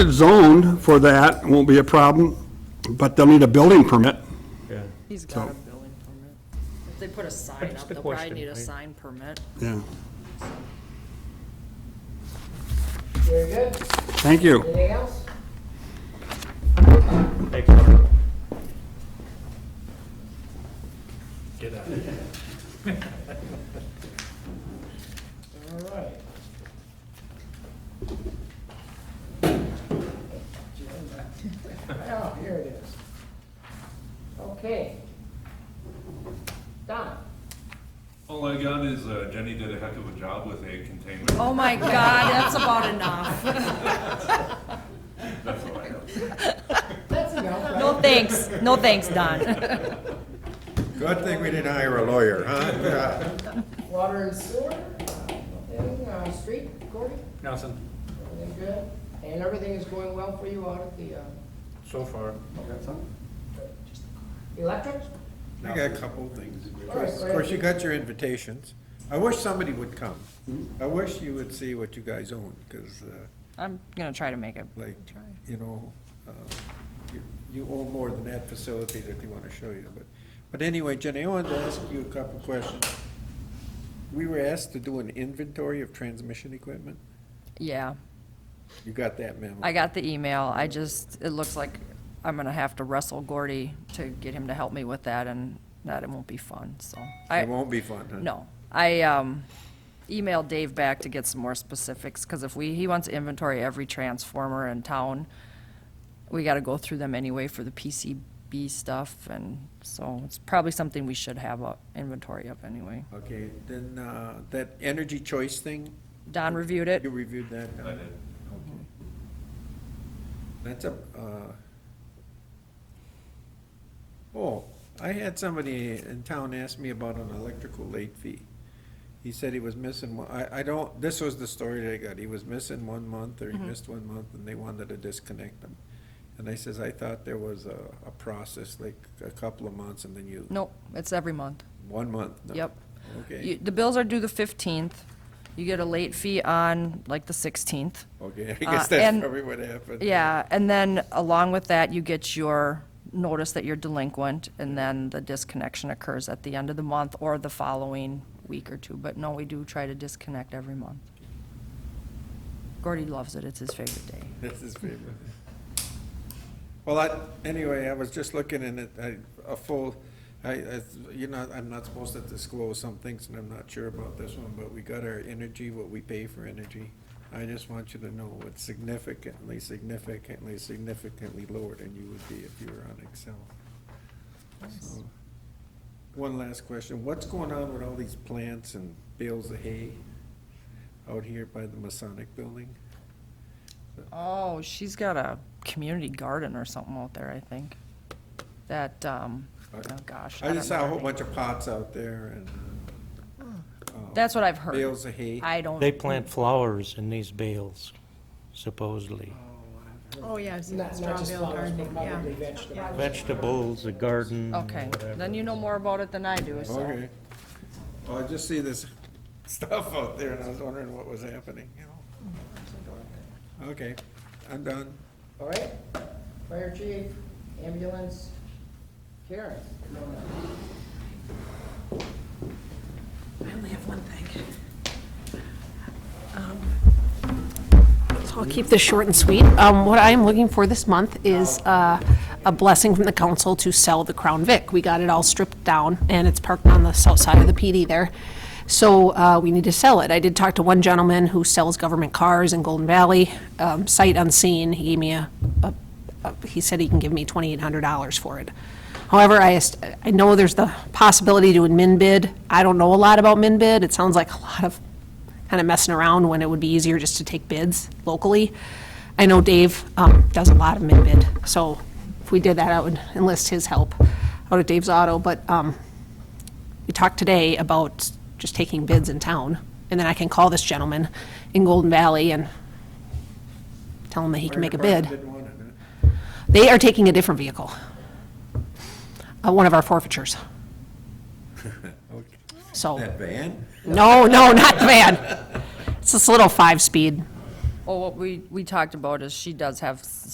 zoned for that, won't be a problem, but they'll need a building permit. Yeah. He's got a building permit. If they put a sign That's up, the they'll probably question, need a right? sign permit. Yeah. Very good. Thank you. Anything else? Thanks, Mark. Get out. All right. Well, Oh, here it is. Okay. Don, All I got is uh, Jenny did a heck of a job with egg containment. Oh my God, that's about enough. That's all I have. that's enough, right? No thanks, no thanks, Don. Good thing we didn't hire a lawyer, huh? Yeah. Water and sewer, everything, uh, street, Cory, Nothing, everything good? And everything is going well for you out at the, uh, so far. electric? I got a couple things. Of course- right. Of course, you got your invitations. I wish somebody would come. I wish you would see what you guys own, because, I'm gonna try to make it. like, you know, uh, you- you own more than that facility that they want to show you, but, but anyway, Jenny, I wanted to ask you a couple questions. We were asked to do an inventory of transmission equipment. Yeah, You got that memo? I got the email. I just, it looks like I'm gonna have to wrestle Gordy to get him to help me with that and that it won't be fun, so. I- It won't be fun, huh? No, I um, emailed Dave back to get some more specifics, because if we, he wants to inventory every transformer in town. We gotta go through them anyway for the PCB stuff, and so it's probably something we should have a inventory of anyway. Okay, then, uh, that energy choice thing, Don reviewed it. You reviewed that? Don? I did. Okay. That's a, uh, oh, I had somebody in town ask me about an electrical late fee. He said he was missing one, I, I don't, this was the story that I got, he was missing one month, or Mm-hmm. he missed one month, and they wanted to disconnect him. And I says, I thought there was a, a process, like a couple of months, and then you, Nope, it's every month. one month? no. Yep. You- Okay, The bills are due the fifteenth. You get a late fee on like the sixteenth. okay, I Uh, guess and- that's probably what happened. Yeah, and then along with that, you get your notice that you're delinquent, and then the disconnection occurs at the end of the month or the following week or two. But no, we do try to disconnect every month. Gordy loves it, it's his favorite day. That's his favorite. Well, I, anyway, I was just looking in it, I, a full, I, I, you know, I'm not supposed to disclose some things, and I'm not sure about this one, but we got our energy, what we pay for energy. I just want you to know it's significantly, significantly, significantly lower than you would be if you were on Excel. So, One last question, what's going on with all these plants and bales of hay out here by the Masonic Building? Oh, she's got a community garden or something out there, I think. That, um, oh gosh. I don't just saw a know whole her name. bunch of pots out there and That's what I've heard. bales of hay. I don't. They plant flowers in these bales, supposedly. Oh, yeah, I've seen Not, that not straw just bale flowers, but gardening, yeah. probably vegetables. Vegetables, a garden. Okay, then you know more about it than I do, so. Okay. Well, I just see this stuff out there and I was wondering what was happening, you know? Mm-hmm. Okay, I'm done. All right, fire chief, ambulance, Karen. I only have one thing. Um, So I'll keep this short and sweet. Um, What I am looking for this month is uh, a blessing from the council to sell the Crown Vic. We got it all stripped down, and it's parked on the south side of the PD there. So uh, we need to sell it. I did talk to one gentleman who sells government cars in Golden Valley, um, sight unseen. He gave me a a uh, he said he can give me $2,800 for it. However, I, est- I know there's the possibility to min bid. I don't know a lot about min bid. It sounds like a lot of kind of messing around when it would be easier just to take bids locally. I know Dave um, does a lot of min bid, so if we did that, I would enlist his help out of Dave's Auto. But um, we talked today about just taking bids in town, and then I can call this gentleman in Golden Valley and tell him that he can make a Fire bid. department didn't want it, huh? They are taking a different vehicle, Uh, one of our forfeitures. So, That van? no, no, not the van. It's this little five-speed Well, what we, we talked about is she does have s-